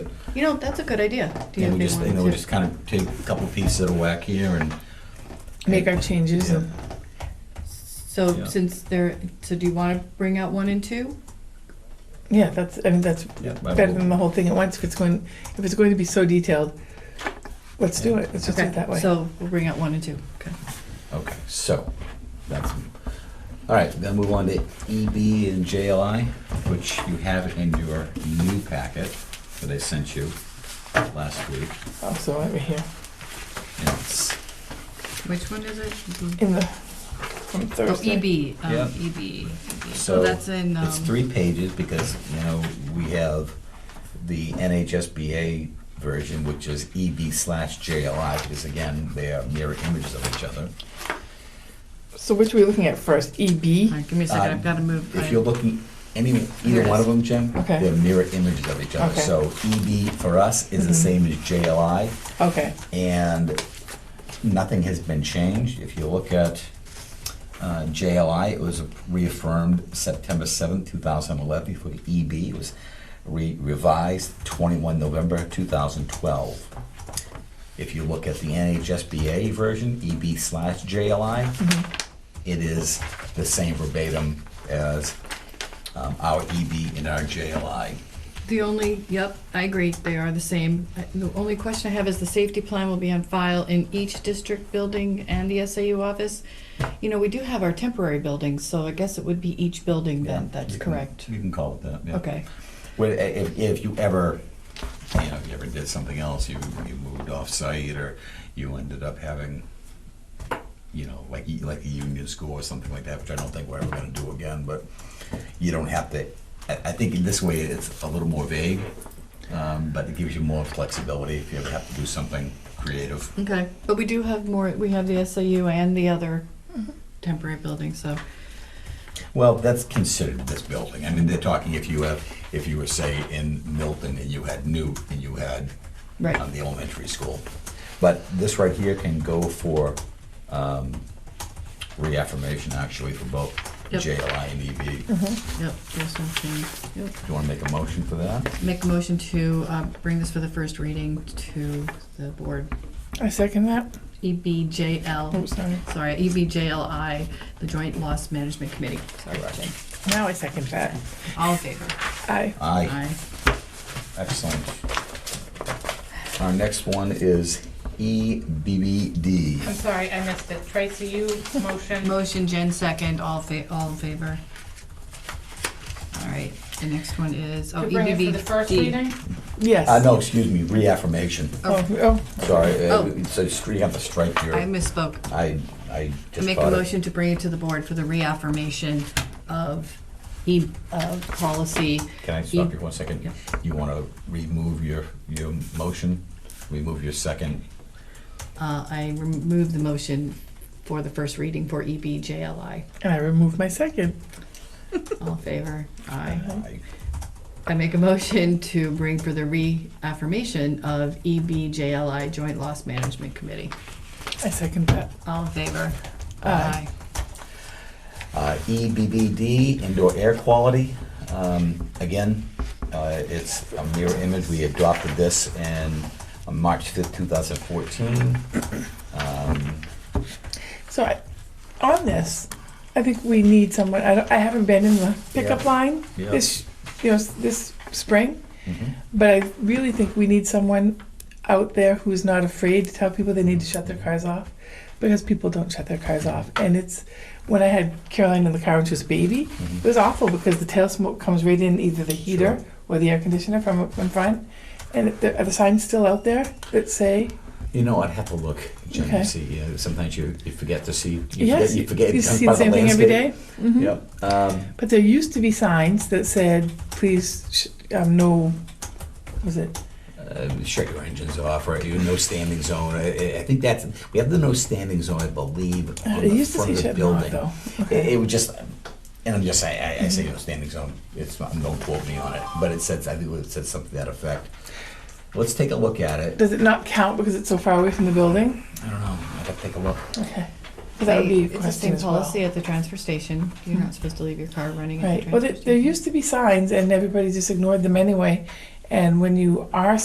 You know, that's a good idea. Do you And we think just, we you know, want we to just kind of take a couple pieces at a whack here and. Make our changes Yeah. and- So Yeah. since there, so do you want to bring out one and two? Yeah, that's, I mean, that's Yeah, I better will- than the whole thing at once, if it's going, if it's going to be so detailed, let's do it, let's just do Okay, it that way. So we'll bring out one and two. Okay. Okay, so, that's, all right, then move on to EB and JLI, which you have in your new packet that I sent you last week. Also over here, And it's- Which one is it? in the, from Oh, Thursday. EB, um, Yeah. EB. So So, that's in, um, It's three pages because, you know, we have the NHSBA version, which is EB slash JLI, because again, they are mirror images of each other. So which are we looking at first, E all EB? right, give me a second, Um, I've got to move. If I- you're looking, any, Here either it one is. of them, Jim, Okay. they're mirror images of each other. Okay. So EB for us is the Mhm. same as JLI, Okay, and nothing has been changed. If you look at uh, JLI, it was reaffirmed September seventh, two 2011. For EB, it E was re- revised 21 November 2012. If you look at the NHSBA version, EB slash JLI, Mm-hmm. it is the same verbatim as um, our EB and our JLI. The only, yep, I agree, they are the same. Uh, The only question I have is the safety plan will be on file in each district building and the SAU office. You know, we do have our temporary buildings, so I guess it would be each building Yeah, then, that's you can- correct. You can call it that, yeah. Okay, Well, i- if, if you ever, you know, you ever did something else, you, you moved off-site, or you ended up having, you know, like, y- like a union school or something like that, which I don't think we're ever gonna do again, but you don't have to, I, I think in this way, it's a little more vague, um, but it gives you more flexibility if you ever have to do something creative. okay, but we do have more, we have the SAU and the other Mm-hmm. temporary building, so, Well, that's considered this building. I mean, they're talking if you have, if you were, say, in Milton, and you had Newt, and you had right, Oh. on the elementary school. But this right here can go for um, reaffirmation, actually, for both Yep. Mm-hmm. JLI and EB. yep, there's no change. Yep. Do you want to make a motion for that? Make a motion to uh, bring this for the first reading to the board. E I second that, oh, EBJL, sorry, sorry, E EBJLI, the Joint Loss Management Committee. Sorry, Correct. Jane. now I second that, All in favor? aye. Aye. Excellent. Our next one is E I'm EBBD. sorry, I missed it. Tracy, you Aye. motion. Motion, Jen, second, all fa, all in favor? All right, the next one is, oh, To bring it for the first EBVD. reading? Yes. Uh, no, excuse me, reaffirmation. Oh, oh, Sorry, uh, Oh. so you have to strike here. I misspoke. I, I just Make a caught it. motion to bring it to the board for the reaffirmation of E, of policy. Can I E- stop you one second? Yeah. You want to remove your, your motion, remove your second? Uh, I remove the motion for the first reading for E EBJLI. and I remove my second, All in favor? Aye. I- I make a motion to bring for the reaffirmation of E EBJLI Joint Loss Management Committee. I second that, All in favor? Aye. Uh, EBBD, indoor air quality. Um, Again, uh, it's a mirror image. We adopted this in on March 5th, 2014. Um, so I, on this, I think we need someone, I don't, I haven't been in the pickup Yeah. line Yeah. this, you know, s- this spring, mhm. But I really think we need someone out there who's not afraid to tell people they need to shut their cars off because people don't shut their cars off. And it's when I had Caroline in the car when she was a baby, Mm-hmm. it was awful because the tail smoke comes right in either the heater Sure. or the air conditioner from from front. And it- there- are the signs still out there that say, You know, I'd have to look, Jim, to Okay. see, you know, sometimes you you forget to see. you forget- yes, You forget. it's see by the same thing every day? landscape. Mhm. Yep. Um, But there used to be signs that said, please, sh- um, no, what was it? uh, shut your engines off, right? You no standing zone. I, I- I think that's we have the no standing zone, I believe, on It the Uh, used to front say of the shut them off building. though. It, Okay. it would just, and I'm just saying, I, I say no standing zone. It's not, don't quote me on it, but it says I think it says something to that effect. Let's take a look at it. Does it not count because it's so far away from the building? I don't know. I gotta take a look. Okay. So that would be a It's the question same as well. policy at the transfer station. You're not supposed to leave your car running at the Right, transfer well, there, station. there used to be signs and everybody just ignored them anyway. And when you are